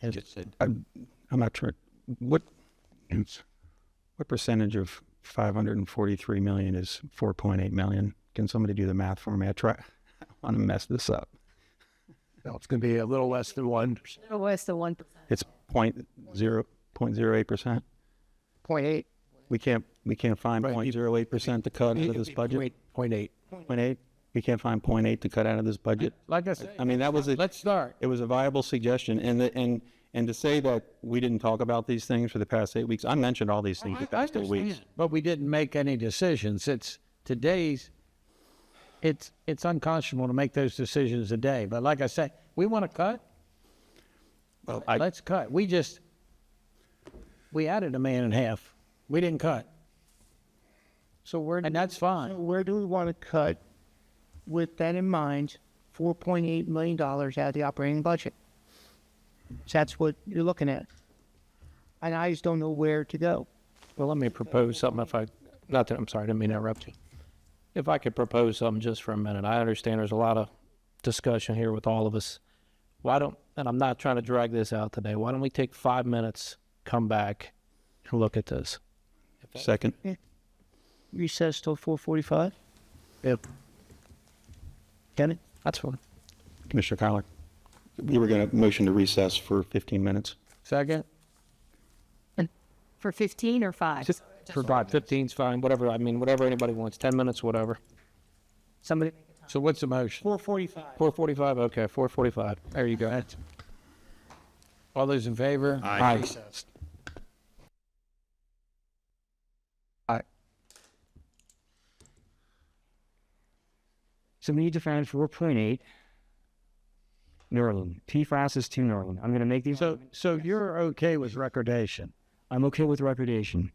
Has- just said. I'm not sure, what, what percentage of five hundred and forty-three million is four point eight million? Can somebody do the math for me? I try, I want to mess this up. No, it's going to be a little less than one Oh, where's the one percent? It's point zero, point zero eight percent? point eight. We can't, we can't find Right, point you- zero eight percent to cut out of this budget? Point eight. Point eight? We can't find point eight to cut out of this budget? Like I said, I mean, that was a, let's start. it was a viable suggestion, and, the- and, and to say that we didn't talk about these things for the past eight weeks, I mentioned all these things the past eight weeks. But we didn't make any decisions. It's today's, it's, it's unconscionable to make those decisions today. But like I say, we want to cut, Well, I, let's cut. We just, we added a man and a half. We didn't cut. So where, do And that's we- fine. where do we want to cut with that in mind, four point eight million dollars out of the operating budget? So that's what you're looking at. And I just don't know where to go. Well, let me propose something if I, not that, I'm sorry, I didn't mean to interrupt you. If I could propose something just for a minute, I understand there's a lot of discussion here with all of us. Why don't, and I'm not trying to drag this out today, why don't we take five minutes, come back, and look at this? second, Recess till four forty-five? Yep. Got it? That's fine. Commissioner Kyler, we were gonna motion to recess for fifteen minutes. Second? For fifteen or five? For five, fifteen's fine, whatever, I mean, whatever anybody wants, ten minutes, whatever. Somebody, So what's the motion? four forty-five. Four forty-five, okay, four forty-five. There you go. That's- All those in favor? Aye. So we need to find 4.8 Nerlin. PFAS is 2 Nerlin. I'm going to make these. So, so you're okay with recordation? I'm okay with recordation.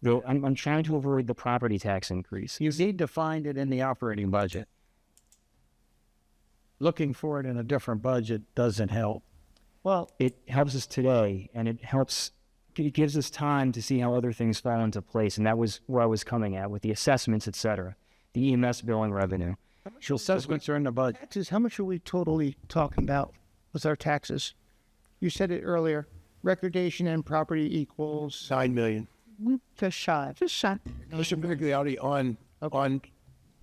Though I'm, I'm trying to avoid the property tax increase. You need to find it in the operating budget. Looking for it in a different budget doesn't help. Well, It helps us today, and it helps. It gives us time to see how other things fall into place, and that was where I was coming at with the assessments, et cetera, the EMS billing revenue. She'll Assessments are in the budget. taxes, how much are we totally talking about with our taxes? You said it earlier, recordation and property equals Nine million. just shy. Just shy. Mr. Migliotti, on, on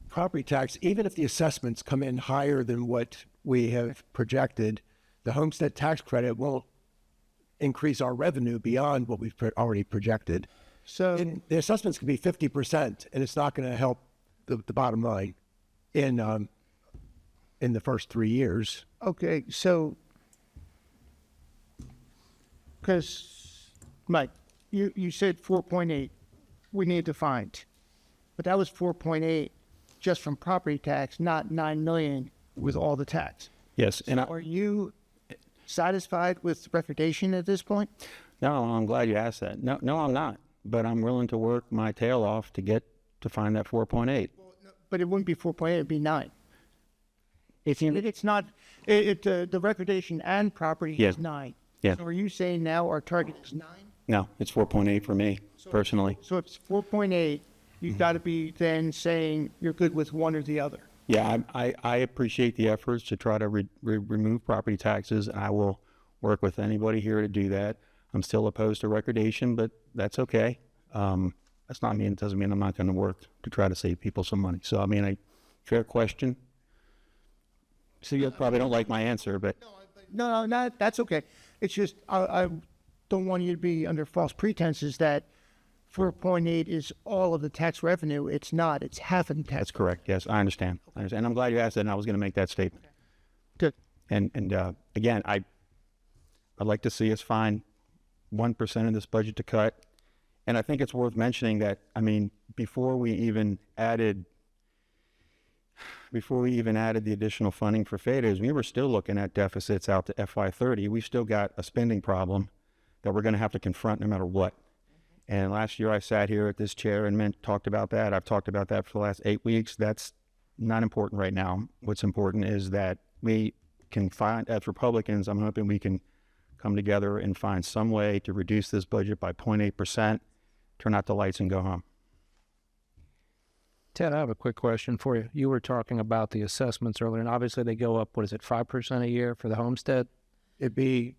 property tax, even if the assessments come in higher than what we have projected, the homestead tax credit won't increase our revenue beyond what we've pro- already projected. So. And the assessments can be fifty percent, and it's not going to help the, the bottom line in, um, in the first three years. Okay, so, because, Mike, you, you said four point eight, we need to find. But that was four point eight just from property tax, not nine million with all the tax. Yes, and I, Are you satisfied with recordation at this point? no, I'm glad you asked that. No, no, I'm not, but I'm willing to work my tail off to get, to find that four point eight. But it wouldn't be four point eight, it'd be nine. If you, It- It's not, it, it, uh, the recordation and property Yes. is nine. Yeah. So are you saying now our target is nine? No, it's four point eight for me personally. So if it's four point eight, you've got to be then saying you're good with one or the other. Yeah, I, I, I appreciate the efforts to try to re, re, remove property taxes. I will work with anybody here to do that. I'm still opposed to recordation, but that's okay. Um, that's not mean, it doesn't mean I'm not going to work to try to save people some money. So, I mean, I, fair question. So you probably don't like my answer, but No, no, not, that's okay. It's just, I, I don't want you to be under false pretenses that four point eight is all of the tax revenue. It's not, it's half of the tax. that's correct. Yes, I understand. I understand. And I'm glad you asked that. And I was going to make that statement. Good. And, and, uh, again, I, I'd like to see us find one percent of this budget to cut. And I think it's worth mentioning that, I mean, before we even added, before we even added the additional funding for FADAs, we were still looking at deficits out to FY thirty. We still got a spending problem that we're gonna have to confront no matter what. And last year I sat here at this chair and meant, talked about that. I've talked about that for the last eight weeks. That's not important right now. What's important is that we can find, as Republicans, I'm hoping we can come together and find some way to reduce this budget by 0.8%, turn out the lights and go home. Ted, I have a quick question for you. You were talking about the assessments earlier, and obviously they go up, what is it, 5% a year for the homestead? It'd be